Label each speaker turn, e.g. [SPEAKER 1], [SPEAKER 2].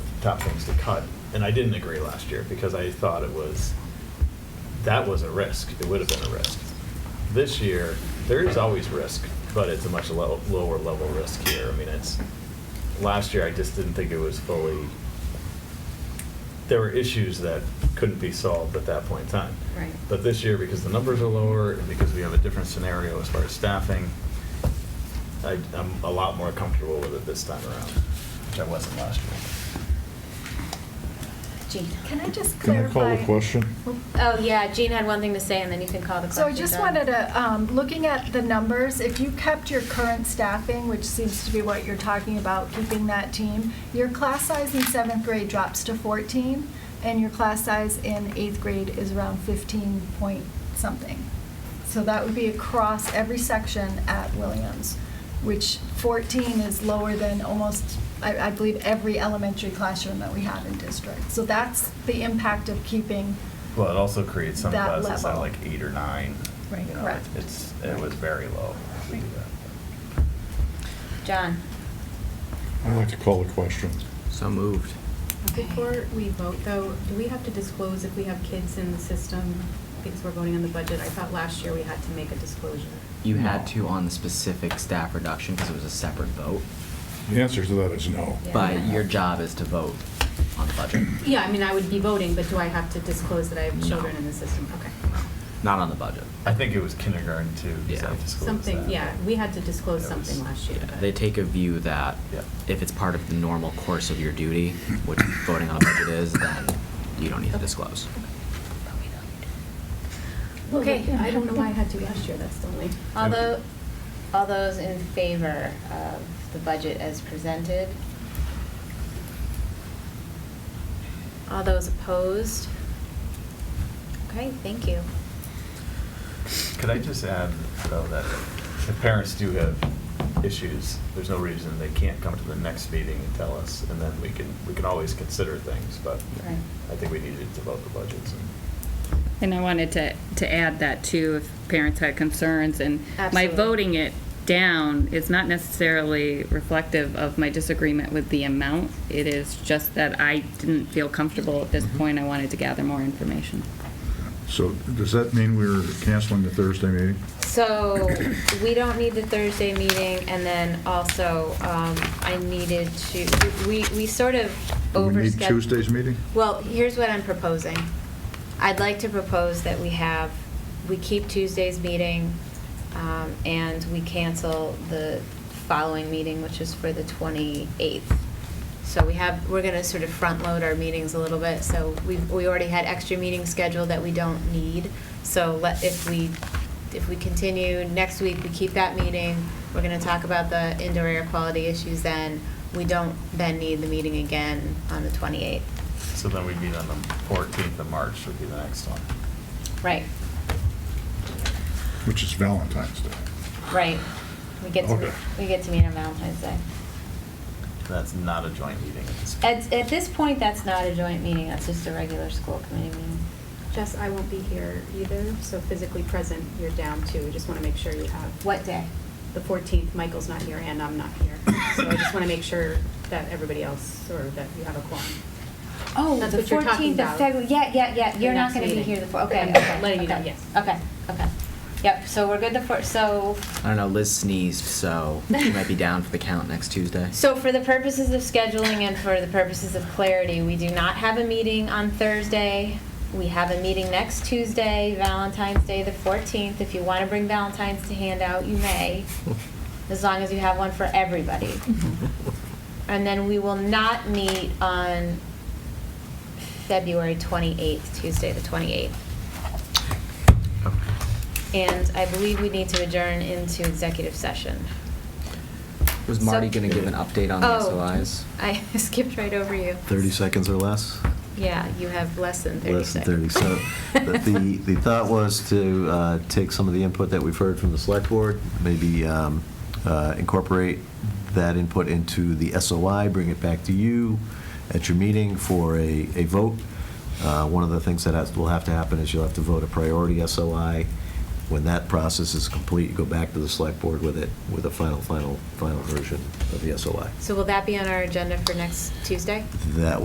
[SPEAKER 1] top things to cut. And I didn't agree last year because I thought it was, that was a risk. It would have been a risk. This year, there is always risk, but it's a much lo- lower level risk here. I mean, it's, last year, I just didn't think it was fully, there were issues that couldn't be solved at that point in time.
[SPEAKER 2] Right.
[SPEAKER 1] But this year, because the numbers are lower and because we have a different scenario as far as staffing, I, I'm a lot more comfortable with it this time around, which I wasn't last year.
[SPEAKER 2] Jean.
[SPEAKER 3] Can I just
[SPEAKER 4] Can I
[SPEAKER 3] clarify?
[SPEAKER 4] call the question?
[SPEAKER 2] Oh, yeah, Jean had one thing to say, and then you can call the
[SPEAKER 3] So I
[SPEAKER 2] question.
[SPEAKER 3] just
[SPEAKER 2] John.
[SPEAKER 3] wanted to, um, looking at the numbers, if you kept your current staffing, which seems to be what you're talking about, keeping that team, your class size in seventh grade drops to 14, and your class size in eighth grade is around 15 point something. So that would be across every section at Williams, which 14 is lower than almost, I I believe, every elementary classroom that we have in district. So that's the impact of keeping
[SPEAKER 1] Well, it also creates some
[SPEAKER 3] That
[SPEAKER 1] classes at
[SPEAKER 3] level.
[SPEAKER 1] like eight or nine.
[SPEAKER 3] Right,
[SPEAKER 1] You know,
[SPEAKER 3] correct.
[SPEAKER 1] It's, it was very low. to do that.
[SPEAKER 2] John.
[SPEAKER 4] I'd like to call the question.
[SPEAKER 5] So moved.
[SPEAKER 6] Before we vote, though, do we have to disclose if we have kids in the system because we're voting on the budget? I thought last year we had to make a disclosure.
[SPEAKER 5] You
[SPEAKER 4] No.
[SPEAKER 5] had to on the specific staff reduction because it was a separate vote,
[SPEAKER 4] The answer to that is no.
[SPEAKER 5] but your job is to vote on the budget.
[SPEAKER 6] Yeah, I mean, I would be voting, but do I have to disclose that I have
[SPEAKER 5] No.
[SPEAKER 6] children in the system? Okay.
[SPEAKER 5] Not on the budget.
[SPEAKER 1] I think it was kindergarten too. 'cause
[SPEAKER 5] Yeah.
[SPEAKER 1] I disclosed
[SPEAKER 6] Something,
[SPEAKER 1] that.
[SPEAKER 6] yeah, we had to disclose
[SPEAKER 1] That
[SPEAKER 6] something
[SPEAKER 1] was-
[SPEAKER 6] last year.
[SPEAKER 5] Yeah,
[SPEAKER 6] but-
[SPEAKER 5] They take a view that
[SPEAKER 1] Yeah.
[SPEAKER 5] if it's part of the normal course of your duty, which voting on a budget is, then you don't need to
[SPEAKER 6] Okay.
[SPEAKER 5] disclose.
[SPEAKER 6] Well,
[SPEAKER 2] Okay.
[SPEAKER 6] yeah, I don't know why I had to last year, that's the only.
[SPEAKER 2] All tho- all those in favor of the budget as presented? All those opposed? Okay, thank you.
[SPEAKER 1] Could I just add, though, that if parents do have issues, there's no reason they can't come to the next meeting and tell us, and then we can, we can always consider things, but
[SPEAKER 2] Right.
[SPEAKER 1] I think we needed to vote the budgets. and-
[SPEAKER 7] And I wanted to, to add that too, if parents had concerns, and my
[SPEAKER 2] Absolutely.
[SPEAKER 7] voting it down is not necessarily reflective of my disagreement with the amount. It is just that I didn't feel comfortable at this point, I wanted to gather more information.
[SPEAKER 4] So does that mean we're canceling the Thursday meeting?
[SPEAKER 2] So we don't need the Thursday meeting, and then also, um, I needed to, we, we sort of
[SPEAKER 4] Do we need
[SPEAKER 2] overscheduled.
[SPEAKER 4] Tuesday's meeting?
[SPEAKER 2] Well, here's what I'm proposing. I'd like to propose that we have, we keep Tuesday's meeting, um, and we cancel the following meeting, which is for the 28th. So we have, we're going to sort of front-load our meetings a little bit, so we, we already had extra meetings scheduled that we don't need. So let, if we, if we continue, next week, we keep that meeting, we're going to talk about the indoor air quality issues then. We don't then need the meeting again on the 28th.
[SPEAKER 1] So then we meet on the 14th of March would be the next one.
[SPEAKER 2] Right,
[SPEAKER 4] Which is Valentine's Day.
[SPEAKER 2] right. We get to,
[SPEAKER 4] Okay.
[SPEAKER 2] we get to meet on Valentine's Day.
[SPEAKER 1] That's not a joint meeting at this point.
[SPEAKER 2] At, at this point, that's not a joint meeting, that's just a regular school committee meeting.
[SPEAKER 6] Jess, I won't be here either, so physically present, you're down two. Just want to make sure you have.
[SPEAKER 2] What day?
[SPEAKER 6] The 14th, Michael's not here and I'm not here. So I just want to make sure that everybody else, or that you have a quorum.
[SPEAKER 2] Oh,
[SPEAKER 6] That's
[SPEAKER 2] the
[SPEAKER 6] what you're talking
[SPEAKER 2] fourteenth of
[SPEAKER 6] about.
[SPEAKER 2] February, yeah, yeah, yeah,
[SPEAKER 6] The
[SPEAKER 2] you're not
[SPEAKER 6] next
[SPEAKER 2] gonna be
[SPEAKER 6] meeting.
[SPEAKER 2] here the four, okay,
[SPEAKER 6] I'm
[SPEAKER 2] okay.
[SPEAKER 6] letting you know,
[SPEAKER 2] okay.
[SPEAKER 6] yes.
[SPEAKER 2] Okay, okay. Yep, so we're good the four, so
[SPEAKER 5] I don't know, Liz sneezed, so she might be down for the count next Tuesday.
[SPEAKER 2] So for the purposes of scheduling and for the purposes of clarity, we do not have a meeting on Thursday. We have a meeting next Tuesday, Valentine's Day, the 14th. If you want to bring Valentine's to hand out, you may, as long as you have one for everybody.
[SPEAKER 5] Mm-hmm.
[SPEAKER 2] And then we will not meet on February 28th, Tuesday, the 28th. And I believe we need to adjourn into executive session.
[SPEAKER 5] Was
[SPEAKER 2] So-
[SPEAKER 5] Marty gonna give an update on the
[SPEAKER 2] Oh,
[SPEAKER 5] SLIs?
[SPEAKER 2] I skipped right over you.
[SPEAKER 8] 30 seconds or less?
[SPEAKER 2] Yeah, you have less than 30
[SPEAKER 8] Less than 30.
[SPEAKER 2] seconds.
[SPEAKER 8] So the- the, the thought was to uh, take some of the input that we've heard from the select board, maybe um, uh, incorporate that input into the SOI, bring it back to you at your meeting for a, a vote. Uh, One of the things that has- will have to happen is you'll have to vote a priority SOI. When that process is complete, you go back to the select board with it, with a final, final, final version of the SOI.
[SPEAKER 2] So will that be on our agenda for next Tuesday?
[SPEAKER 8] That